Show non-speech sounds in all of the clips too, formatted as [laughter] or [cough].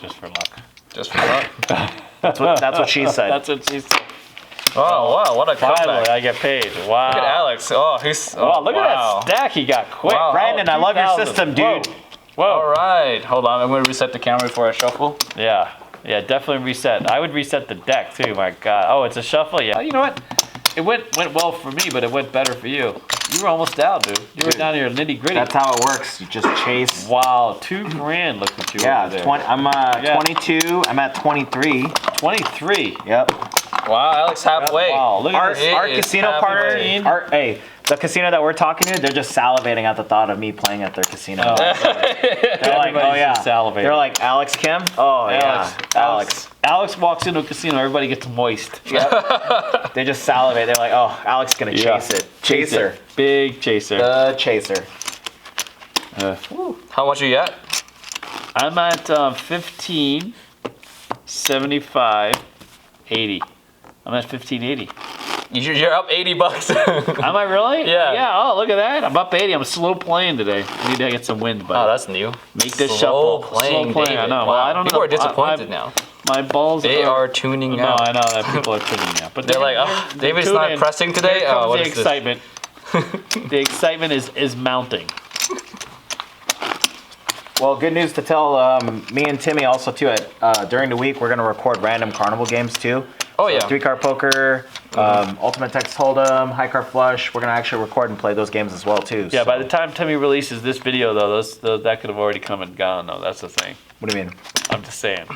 just for luck. Just for luck. That's what, that's what she said. That's what she said. Oh wow, what a Finally, comeback! I get paid. Wow. Look at Alex. Oh, he's. Oh, Wow, look wow. at that stack he got quick. Wow. Brandon, I love your 2,000. system, dude. Whoa. Whoa. All right, hold on. I'm gonna reset the camera before I shuffle. Yeah. Yeah, definitely reset. I would reset the deck too. My God. Oh, it's a shuffle. Yeah. You know what? It went went well for me, but it went better for you. You were almost down, dude. You were Dude. down to your nitty gritty. That's how it works. You just chase. wow, two grand. Look at you. Yeah, over there. 20, I'm uh, Yeah. 22. I'm at 23. 23. Yep. Wow, Alex, halfway. Wow, look at Our, It our is casino partner, halfway. our, hey, the casino that we're talking to, they're just salivating at the thought of me playing at their [laughs] casino. They're like, oh Oh. Everybody's yeah. just salivating. They're like, Alex Kim? Oh Alex, yeah. Alex. Alex walks into a casino, everybody gets moist. They just salivate. They're like, oh, Alex's gonna Yeah. chase it. Chaser. Uh, Big chaser. Uh, The chaser. How much are you at? I'm at um, 15, 75, 80. I'm at 1580. You- You're up 80 bucks. [laughs] oh, Am I really? Yeah. Yeah. Oh, look at that. I'm up 80. I'm slow playing today. I need to get some wind, but Oh, that's new. make this Slow shuffle. slow playing, playing. I David. know. Wow. Well, I don't People know. are disappointed I- I- now. My balls. They are tuning No, out. I know that people [laughs] are tuning now, but They're like, "Oh, David's not tuning. pressing today? Here Oh, comes what the is this?" [laughs] excitement. the excitement is is mounting. Well, good news to tell um, me and Timmy also too. At uh, during the week, we're gonna record random carnival games too. Oh, yeah. Three card poker, um, ultimate text hold'em, high card flush. We're gonna actually record and play those games as well too. Yeah. so- By the time Timmy releases this video, though, those, those that could have already come and gone. Though that's the thing. what do you mean? I'm just saying.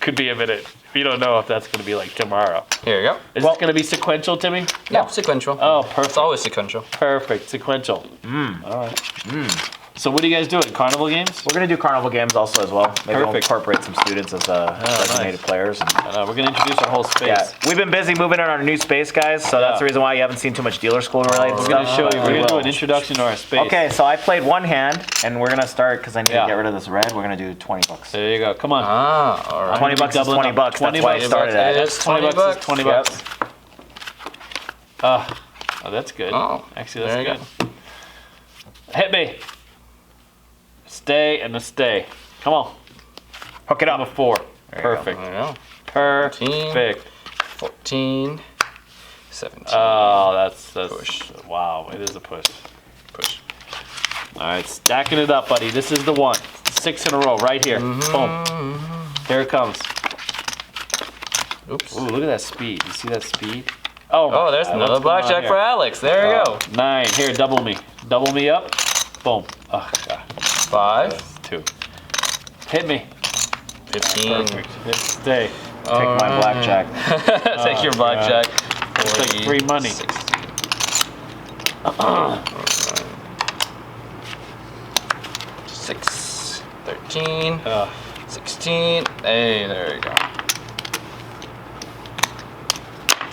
Could be a minute. We don't know if that's going to be like tomorrow. Here you go. Is Well- this going to be sequential, Timmy? Yeah, sequential. Oh, It's perfect. always sequential. Perfect. Sequential. Mm. All right. mm. So what are you guys doing? Carnival games? We're gonna do carnival games also as well. Maybe we'll Perfect. Oh, incorporate some students as uh, nice. designated players. and- Uh, we're going to introduce our whole space. yeah, we've been busy moving in our new space, guys. So that's Yeah. Oh, the reason why you haven't seen too much dealer school related We're stuff. going to show you. but We're we going to do will. an introduction to our space. Okay, so I played one hand, and we're gonna start because I need Yeah. to get rid of this red. We're gonna do twenty bucks. There you go. Come on. Ah, all right. 20 bucks is doubling 20 up. bucks. 20 That's why I bucks started it at it. is 20 bucks, is 20 Yep. bucks. Ah, oh, that's good. Oh, Actually, there you that's good. Hit me. Stay and a stay. Come on. Hook it I'm a up. four. you go. Perfect. There you go. Perfect. 14, 17. Oh, that's, that's Push. Wow, it is a push. push. All right, stacking it up, buddy. This is the one. Six in a row, right here. Boom. Here it comes. Oops. Ooh, look at that speed. You see that speed? Oh, my Oh, there's God, another what's going on blackjack here? Uh, for Alex. There you go. Nine. Here, double me. Double me up. Boom. Oh, God. Five, Two. Hit me. 15. Perfect. Hit Stay. Take Oh. my blackjack. [laughs] Take your blackjack. like 40, Oh, free money. 60. [clears throat] Six, 13, Uh, 16. Hey, there you go.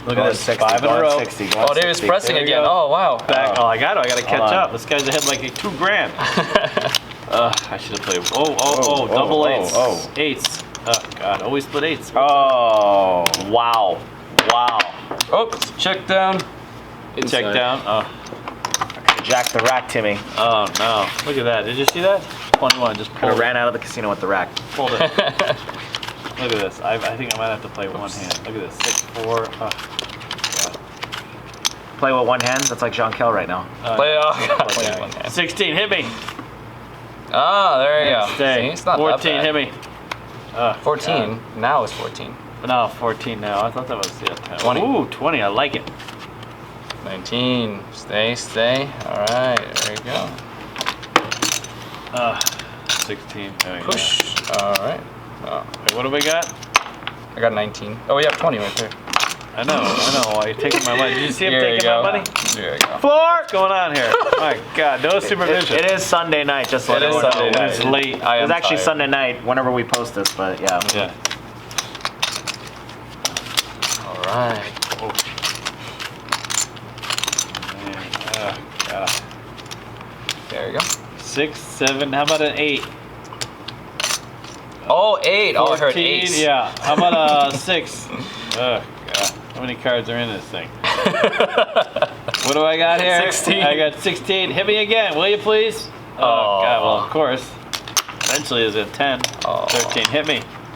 look Going at this. Five in a going row. 60, going Oh, David's 60. pressing There we again. go. Oh, wow. Back. Oh. Oh, I got it. I got to catch on. up. This guy's ahead like two grand. uh, I should have played. Oh, oh, oh, Oh, oh, double oh, eights. oh. Eights. Oh, God. Always split eights. Oh, wow. Wow. Oops, check down. Check Oh. Inside. down. Oh, Jack the rack, Timmy. oh, no. Look at that. Did you see that? 21. Just Could pulled have it. ran out of the casino with the rack. Hold [laughs] it. Look at this. I, I think I might have to play one hand. Look at this. Six, four. Uh, Play with one hand. That's like Jean Kell right now. uh, [laughs] Play oh, off. play Play one one hand. hand. 16, hit me. Ah, there you go. Stay. See, it's not 14, that bad. hit me. Uh, 14. Now it's 14. no, 14 now. I thought that was yeah, 10. 20. Ooh, 20. I like it. 19. Stay, stay. All right, there you go. Uh, 16. There we go. Push. All right. Oh, Wait, what do we got? I got 19. Oh, you have 20 right there. I know. I know. Why you taking my money? Did you see him Here you taking my go. money? There you go. Four. What's going on [laughs] here? my God. No It- supervision. it is Sunday night, just so It is everyone knows. Sunday when night. it's late. I am It's actually tired. Sunday night whenever we post this, but yeah. Yeah. All right. Oh. Man, oh, God. There you go. Six, seven. How about an eight? Oh, eight. Oh, I heard 14, eight. Yeah. How [laughs] about a six? Ugh, God. How many cards are in this thing? [laughs] what do I got here? 16. I got 16. Hit me again, will you please? Oh, God. Well, of course. Eventually, is a 10. Aw. 13. Hit me.